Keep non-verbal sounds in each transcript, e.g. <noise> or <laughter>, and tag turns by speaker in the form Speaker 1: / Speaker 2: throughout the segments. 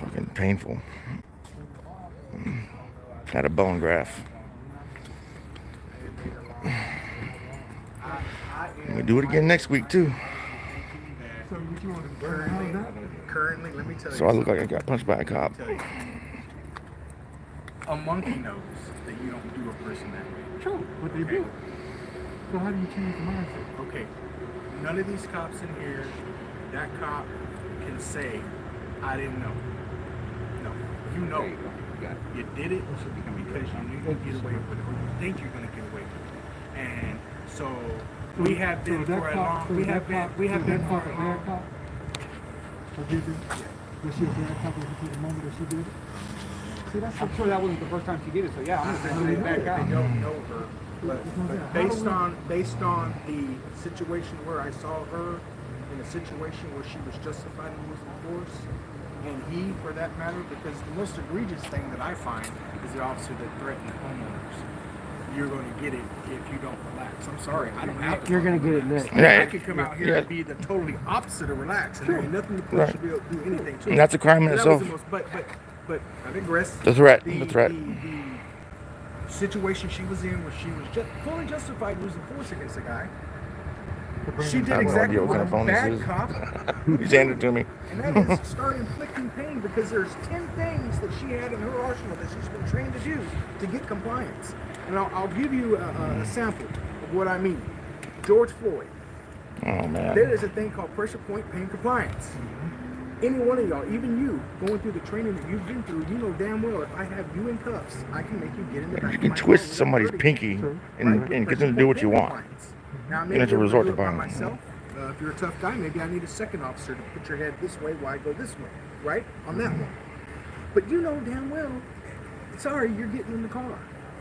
Speaker 1: Fucking painful. Had a bone graft. We do it again next week too.
Speaker 2: So what you want to burn? How's that?
Speaker 3: Currently, let me tell you.
Speaker 1: So I look like I
Speaker 3: something.
Speaker 1: got punched by a cop.
Speaker 3: Let me tell you. A monkey knows that you don't do a person that way.
Speaker 2: True, but they do. So how do you change the mindset?
Speaker 3: Okay, none of these cops in here, that cop can say, I didn't know. No, you know. You did it because you knew you'd get away with it, or you think you're gonna get away with it. And so, we have
Speaker 2: So
Speaker 3: been
Speaker 2: that
Speaker 3: for a
Speaker 2: cop-
Speaker 3: long,
Speaker 2: so
Speaker 3: we
Speaker 2: that
Speaker 3: have been,
Speaker 2: cop-
Speaker 3: we
Speaker 2: so
Speaker 3: have
Speaker 2: that
Speaker 3: been for
Speaker 2: cop,
Speaker 3: a
Speaker 2: a
Speaker 3: long.
Speaker 2: bad cop. Forgive me. Was she a bad cop at the moment that she did it? See, that's the
Speaker 4: I'm sure that wasn't the first time she did it, so yeah, I'm
Speaker 3: They
Speaker 4: gonna say that
Speaker 3: don't- they
Speaker 4: guy.
Speaker 3: don't know her, but, but based on, based on the situation where I saw her, in a situation where she was justified in using force, and he for that matter, because the most egregious thing that I find is the officer that threatened homeowners. You're gonna get it if you don't relax. I'm sorry, I don't have to.
Speaker 5: You're gonna
Speaker 3: fucking
Speaker 5: get it
Speaker 3: relax.
Speaker 5: next.
Speaker 1: Yeah.
Speaker 3: I could come out here and be the totally opposite of relax, and there ain't nothing the police
Speaker 1: Right.
Speaker 3: should be able to do anything to.
Speaker 1: And that's a crime in
Speaker 3: But that
Speaker 1: itself.
Speaker 3: was the most- But, but, but, I digress.
Speaker 1: The threat, the threat.
Speaker 3: the- situation she was in where she was just fully justified using force against a guy. She
Speaker 1: I
Speaker 3: did
Speaker 1: have no
Speaker 3: exactly
Speaker 1: idea what
Speaker 3: what a
Speaker 1: kind of phone
Speaker 3: bad
Speaker 1: this is.
Speaker 3: cop,
Speaker 1: He's handed it to me.
Speaker 3: and
Speaker 1: <laughs>
Speaker 3: that is start inflicting pain because there's ten things that she had in her arsenal that she's been trained to do to get compliance. And I'll, I'll give you a, a- a sample of what I mean. George Floyd.
Speaker 1: Oh
Speaker 3: There
Speaker 1: man.
Speaker 3: is a thing called pressure point pain compliance.
Speaker 1: Mm-hmm.
Speaker 3: Any one of y'all, even you, going through the training that you've been through, you know damn well if I have you in cuffs, I can make you get in the back
Speaker 1: You
Speaker 3: of
Speaker 1: can
Speaker 3: my car
Speaker 1: twist
Speaker 3: without
Speaker 1: somebody's
Speaker 3: hurting you.
Speaker 1: pinky and, and get them to do what you want.
Speaker 3: Now,
Speaker 1: You don't have to
Speaker 3: if I
Speaker 1: resort
Speaker 3: do
Speaker 1: to
Speaker 3: it by
Speaker 1: violence.
Speaker 3: myself, uh, if you're a tough guy, maybe I need a second officer to put your head this way while I go this way, right? On
Speaker 1: Mm-hmm.
Speaker 3: that one. But you know damn well, sorry, you're getting in the car.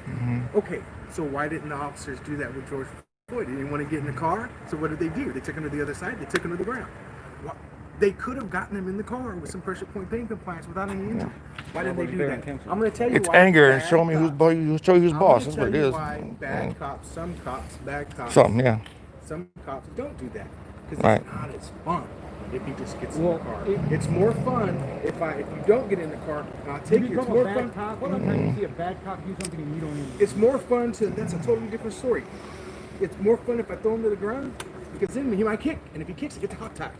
Speaker 1: Mm-hmm.
Speaker 3: Okay, so why didn't the officers do that with George Floyd? They didn't want to get in the car, so what did they do? They took him to the other side, they took him to the ground. Why- They could have gotten him in the car with some pressure point pain compliance without any injury. Why didn't they do that? I'm going to tell you
Speaker 1: It's
Speaker 3: why.
Speaker 1: anger and
Speaker 3: bad
Speaker 1: show me who's
Speaker 3: cops-
Speaker 1: boy, you show you who's
Speaker 3: I'm
Speaker 1: boss.
Speaker 3: gonna
Speaker 1: That's what it
Speaker 3: tell you
Speaker 1: is.
Speaker 3: Why bad cops, some cops, bad cops,
Speaker 1: Something, yeah.
Speaker 3: some cops don't do that because
Speaker 1: Right.
Speaker 3: it's not as fun if he just gets in
Speaker 4: Well,
Speaker 3: the car.
Speaker 4: it-
Speaker 3: it's more fun if I if you don't get in the car. I'll
Speaker 4: You
Speaker 3: take you. It's
Speaker 4: become a
Speaker 3: more fun.
Speaker 4: bad cop, what I'm trying to see a bad cop do something and you don't even.
Speaker 3: It's more fun to. That's a totally different story. It's more fun if I throw him to the ground because then he might kick, and if he kicks, he gets a hog tie.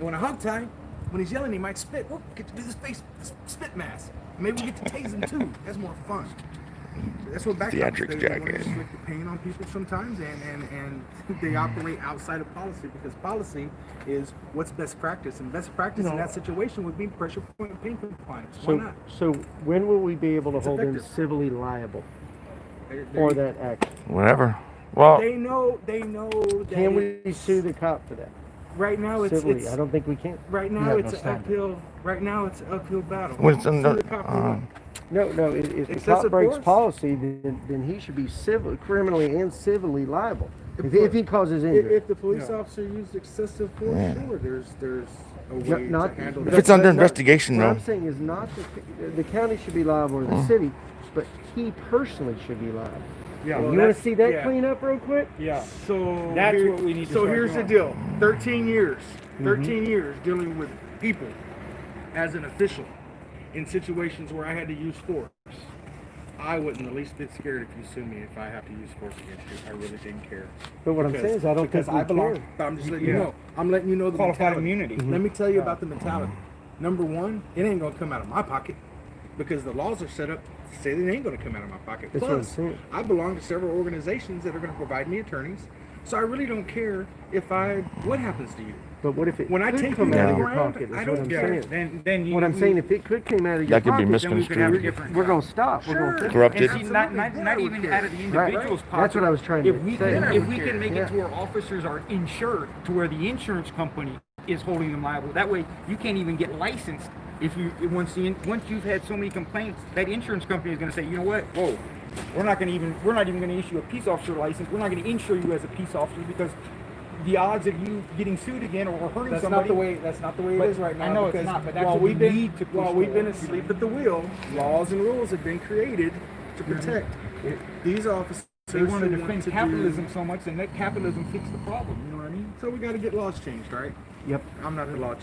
Speaker 3: And when a hog tie, when he's yelling, he might spit. Whoop, get to do this face this spit mask. Maybe we get to tase him too. That's more fun. That's what back
Speaker 1: Theatrics
Speaker 3: they want to
Speaker 1: jacket.
Speaker 3: inflict the pain on people sometimes, and and and <laughs> they operate outside of policy because policy is what's best practice, and best practice in that situation would be pressure point pain compliance. Why
Speaker 5: So,
Speaker 3: not?
Speaker 5: so when will we be able to
Speaker 3: It's
Speaker 5: hold him
Speaker 3: effective.
Speaker 5: civilly liable
Speaker 3: There- there
Speaker 5: for
Speaker 3: you-
Speaker 5: that action?
Speaker 1: Whatever. Well,
Speaker 3: They know. They know. That
Speaker 5: Can we
Speaker 3: it's-
Speaker 5: sue the cop for that
Speaker 3: Right now, it's,
Speaker 5: civilly?
Speaker 3: it's
Speaker 5: I don't think we can.
Speaker 3: right
Speaker 5: You
Speaker 3: now
Speaker 5: have
Speaker 3: it's
Speaker 5: no
Speaker 3: an
Speaker 5: standing.
Speaker 3: uphill. Right now, it's an uphill battle.
Speaker 1: when it's in
Speaker 3: Sue
Speaker 1: the,
Speaker 3: the cop for
Speaker 1: uh,
Speaker 3: what?
Speaker 5: No, no, if, if the
Speaker 3: Excessive
Speaker 5: cop breaks
Speaker 3: force?
Speaker 5: policy, then, then he should be civil, criminally and civilly liable. If, if he causes
Speaker 3: if,
Speaker 5: injury.
Speaker 3: if the police officer used excessive force,
Speaker 1: Yeah.
Speaker 3: sure, there's there's a
Speaker 5: No-
Speaker 3: way
Speaker 5: not-
Speaker 3: to handle
Speaker 5: but-
Speaker 1: if it's
Speaker 3: that.
Speaker 1: under
Speaker 5: but not-
Speaker 1: investigation,
Speaker 5: What
Speaker 1: though. Mm.
Speaker 5: I'm saying is not, the, the county should be liable or the city, but he personally should be liable.
Speaker 4: Yeah,
Speaker 5: And
Speaker 4: well,
Speaker 5: You wanna
Speaker 4: that's-
Speaker 5: see that
Speaker 3: yeah.
Speaker 5: clean up real quick?
Speaker 4: Yeah.
Speaker 3: So
Speaker 4: That's what we need to
Speaker 3: So
Speaker 4: start
Speaker 3: here's
Speaker 4: doing.
Speaker 3: the deal: 13 years,
Speaker 5: Mm-hmm.
Speaker 3: 13 years dealing with people as an official in situations where I had to use force. I wasn't the least bit scared if you sue me if I have to use force against you. I really didn't care.
Speaker 5: But what I'm
Speaker 3: Because-
Speaker 5: saying is, I don't
Speaker 4: because
Speaker 5: think
Speaker 4: I
Speaker 5: we
Speaker 4: belong-
Speaker 5: care. Mm-hmm.
Speaker 3: But I'm just letting you
Speaker 4: Yeah.
Speaker 3: know. I'm letting you know the
Speaker 4: Qualified
Speaker 3: mentality.
Speaker 4: immunity.
Speaker 3: Let me tell you about the mentality. Number one, it ain't gonna come out of my pocket because the laws are set up to say that it ain't gonna come out of my pocket.
Speaker 5: That's what I'm
Speaker 3: Plus,
Speaker 5: saying.
Speaker 3: I belong to several organizations that are gonna provide me attorneys, so I really don't care if I what happens to you.
Speaker 5: But what if it
Speaker 3: When I
Speaker 5: could
Speaker 3: take
Speaker 5: come
Speaker 3: you
Speaker 5: out
Speaker 1: to
Speaker 5: of
Speaker 1: the
Speaker 5: your
Speaker 3: ground,
Speaker 5: pocket, is
Speaker 3: I
Speaker 5: what
Speaker 3: don't
Speaker 5: I'm
Speaker 3: care.
Speaker 5: saying.
Speaker 4: Then, then you.
Speaker 5: What I'm saying, if it could come out of your
Speaker 1: That could be
Speaker 5: pocket,
Speaker 4: Then we could have a
Speaker 1: misconstrued.
Speaker 4: different.
Speaker 5: we're gonna stop, we're gonna fix it.
Speaker 1: Corrupted.
Speaker 4: And see, not, not,
Speaker 3: Then I
Speaker 4: not
Speaker 3: would
Speaker 4: even
Speaker 3: care.
Speaker 4: out of the
Speaker 5: Right.
Speaker 4: individual's pocket.
Speaker 5: That's what I was trying
Speaker 4: if
Speaker 5: to
Speaker 4: we
Speaker 5: say.
Speaker 4: Can,
Speaker 5: Then I
Speaker 4: if
Speaker 3: would
Speaker 4: we
Speaker 3: care.
Speaker 4: can make
Speaker 5: Yeah.
Speaker 4: it to where officers are insured, to where the insurance company is holding them liable, that way you can't even get licensed. If you once the in- once you've had so many complaints, that insurance company is going to say, you know what? Whoa, we're not going to even we're not even going to issue a peace officer license. We're not going to insure you as a peace officer because the odds of you getting sued again or hurting
Speaker 3: That's not
Speaker 4: somebody.
Speaker 3: the way. That's not the way it
Speaker 4: But
Speaker 3: is right
Speaker 4: I
Speaker 3: now.
Speaker 4: know it's
Speaker 3: because
Speaker 4: not, but that's
Speaker 3: while
Speaker 4: what we
Speaker 3: we've been,
Speaker 4: need to push
Speaker 3: While we've been
Speaker 4: forward.
Speaker 3: asleep at the wheel, laws and rules have been created to protect these officers.
Speaker 4: Mm-hmm. they want to
Speaker 3: who
Speaker 4: defend
Speaker 3: do-
Speaker 4: capitalism so much, and let capitalism fix the problem. You know what I mean?
Speaker 3: So we got to get laws changed, right?
Speaker 5: Yep.
Speaker 3: I'm not a law